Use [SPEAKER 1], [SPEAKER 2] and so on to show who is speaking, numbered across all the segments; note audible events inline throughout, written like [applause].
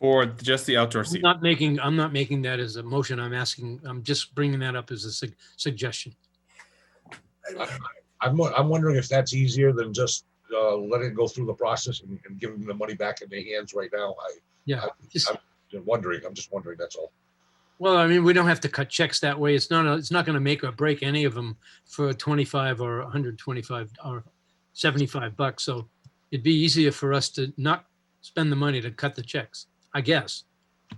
[SPEAKER 1] for just the outdoor
[SPEAKER 2] I'm
[SPEAKER 1] seating.
[SPEAKER 2] not making, I'm not making that as a motion. I'm asking, I'm just bringing that up as a sug- suggestion.
[SPEAKER 3] I'm, wo- I'm wondering if that's easier than just, uh, letting it go through the process and, and giving the money back in their hands right now. I,
[SPEAKER 2] Just-
[SPEAKER 3] I'm wondering, I'm just wondering, that's all.
[SPEAKER 2] Well, I mean, we don't have to cut checks that way. It's not, a- it's not going to make or break any of them for 25 or 125 or 75 bucks. So it'd be easier for us to not spend the money to cut the checks, I guess.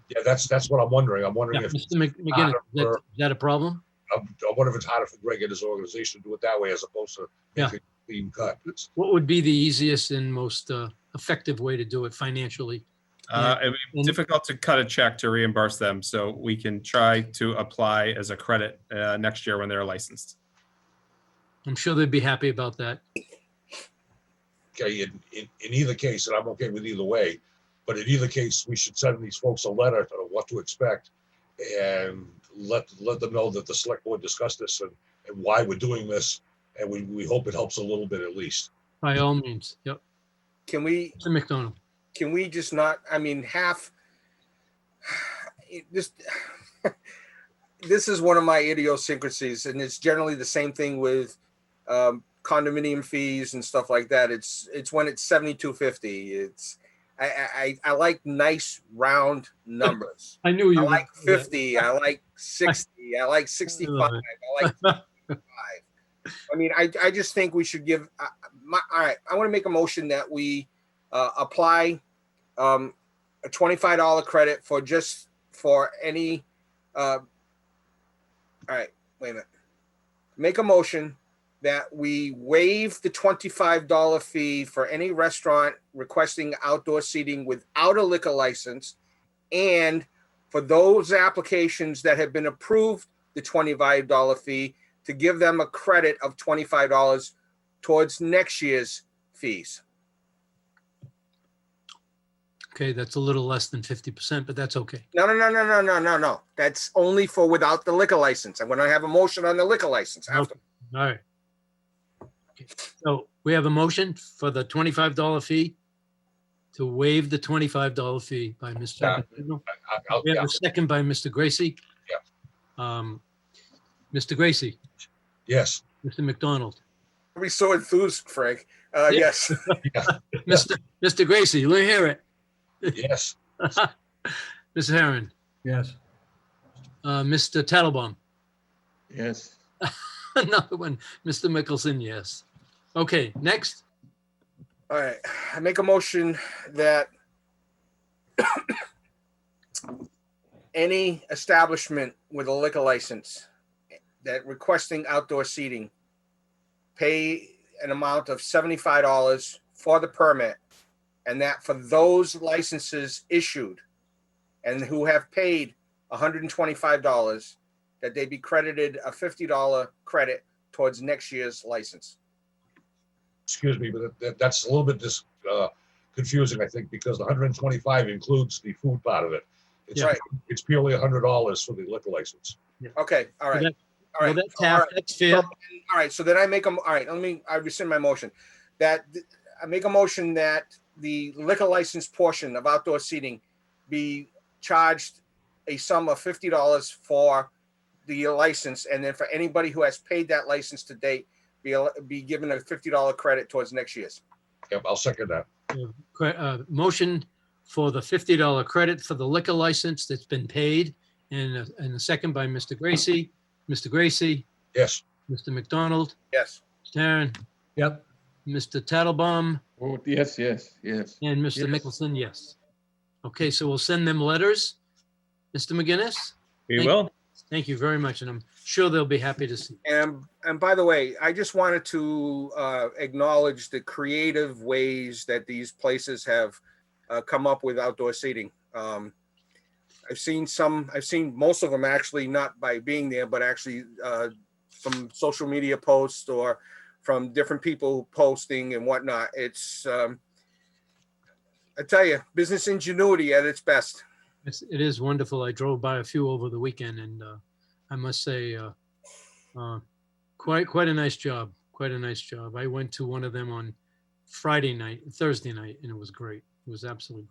[SPEAKER 3] Yeah, that's, that's what I'm wondering. I'm
[SPEAKER 2] Yeah,
[SPEAKER 3] wondering if,
[SPEAKER 2] Mr. Mc- McGinnis, is that-
[SPEAKER 3] or-
[SPEAKER 2] is that a problem?
[SPEAKER 3] I'm, I wonder if it's harder for Greg and his organization to do it that way as opposed to
[SPEAKER 2] Yeah.
[SPEAKER 3] making a clean cut. It's,
[SPEAKER 2] What would be the easiest and most uh, effective way to do it financially?
[SPEAKER 1] Uh, it'd be
[SPEAKER 2] And-
[SPEAKER 1] difficult to cut a check to reimburse them, so we can try to apply as a credit uh, next year when they're licensed.
[SPEAKER 2] I'm sure they'd be happy about that.
[SPEAKER 3] okay, in, in, in either case, and I'm okay with either way, but in either case, we should send these folks a letter of what to expect and let, let them know that the select board discussed this and, and why we're doing this. And we, we hope it helps a little bit at least.
[SPEAKER 2] By all means. Yep.
[SPEAKER 4] Can we,
[SPEAKER 2] Mr. McDonald.
[SPEAKER 4] can we just not, I mean, half, [sighs] it just, [sighs] this is one of my idiosyncrasies, and it's generally the same thing with um, condominium fees and stuff like that. It's, it's when it's seventy-two fifty, it's, I, I, I I like nice round numbers.
[SPEAKER 2] I knew you.
[SPEAKER 4] I
[SPEAKER 2] would
[SPEAKER 4] like
[SPEAKER 2] do that.
[SPEAKER 4] fifty, I like sixty, I like sixty-five, I like I mean, I, I just think we should give, uh, my, all right, I want to make a motion that we, uh, apply, um, a twenty-five dollar credit for just, for any, uh, all right, wait a minute. Make a motion that we waive the twenty-five dollar fee for any restaurant requesting outdoor seating without a liquor license. And for those applications that have been approved, the twenty-five dollar fee to give them a credit of twenty-five dollars towards next year's fees.
[SPEAKER 2] Okay, that's a little less than 50%, but that's okay.
[SPEAKER 4] No, no, no, no, no, no, no, no. That's only for without the liquor license. I'm gonna have a motion on the liquor license after.
[SPEAKER 2] All right. Okay, So we have a motion for the twenty-five dollar fee to waive the twenty-five dollar fee by
[SPEAKER 3] Yeah.
[SPEAKER 2] Mr. McDonald.
[SPEAKER 3] I- I- I'll-
[SPEAKER 2] We have
[SPEAKER 3] yeah,
[SPEAKER 2] a second by Mr. Gracie. Yeah. Um, Mr. Gracie,
[SPEAKER 3] Yes,
[SPEAKER 2] Mr. McDonald,
[SPEAKER 4] We so enthused, Frank. Uh,
[SPEAKER 2] Yeah.
[SPEAKER 4] yes,
[SPEAKER 2] Mr. Mr. Gracie, let me hear it.
[SPEAKER 3] yes,
[SPEAKER 2] Ms. Herron,
[SPEAKER 5] Yes.
[SPEAKER 2] uh, Mr. Tattlebaum,
[SPEAKER 5] Yes.
[SPEAKER 2] [laughs] another one, Mr. Mickelson, yes. Okay, next,
[SPEAKER 4] all right. I make a motion that any establishment with a liquor license that requesting outdoor seating pay an amount of seventy-five dollars for the permit, and that for those licenses issued and who have paid hundred and twenty-five dollars, that they be credited a fifty-dollar credit towards next year's license.
[SPEAKER 3] excuse me, but that, that's a little bit dis uh, confusing, I think, because the hundred and twenty-five includes the food part of it. It's,
[SPEAKER 4] Yeah. Right.
[SPEAKER 3] it's purely a hundred dollars for the liquor license.
[SPEAKER 4] Okay, all right,
[SPEAKER 2] That-
[SPEAKER 4] all
[SPEAKER 2] well,
[SPEAKER 4] right.
[SPEAKER 2] that's
[SPEAKER 4] all right.
[SPEAKER 2] half, that's fair.
[SPEAKER 4] all right, so then I make them, all right, let me, I rescind my motion. That, th- I make a motion that the liquor license portion of outdoor seating be charged a sum of fifty dollars for the license, and then for anybody who has paid that license to date, be, al- be given a fifty dollar credit towards next year's.
[SPEAKER 3] Yep, I'll second that.
[SPEAKER 2] cre- uh, motion for the fifty dollar credit for the liquor license that's been paid, and, a- and a second by Mr. Gracie, Mr. Gracie,
[SPEAKER 3] Yes,
[SPEAKER 2] Mr. McDonald,
[SPEAKER 4] Yes,
[SPEAKER 2] Taryn,
[SPEAKER 5] Yep.
[SPEAKER 2] Mr. Tattlebaum,
[SPEAKER 5] Oh, yes, yes, yes.
[SPEAKER 2] and
[SPEAKER 5] Yes.
[SPEAKER 2] Mr. Mickelson, yes. Okay, so we'll send them letters. Mr. McGinnis,
[SPEAKER 1] We
[SPEAKER 2] Thank-
[SPEAKER 1] will.
[SPEAKER 2] thank you very much, and I'm sure they'll be happy to see.
[SPEAKER 4] and, and by the way, I just wanted to, uh, acknowledge the creative ways that these places have, uh, come up with outdoor seating. Um, I've seen some, I've seen most of them actually not by being there, but actually, uh, from social media posts or from different people posting and whatnot. It's, um, I tell you, business ingenuity at its best.
[SPEAKER 2] It's, it is wonderful. I drove by a few over the weekend, and uh, I must say, uh, uh, quite quite a nice job. Quite a nice job. I went to one of them on Friday night, Thursday night, and it was great. It was absolutely great.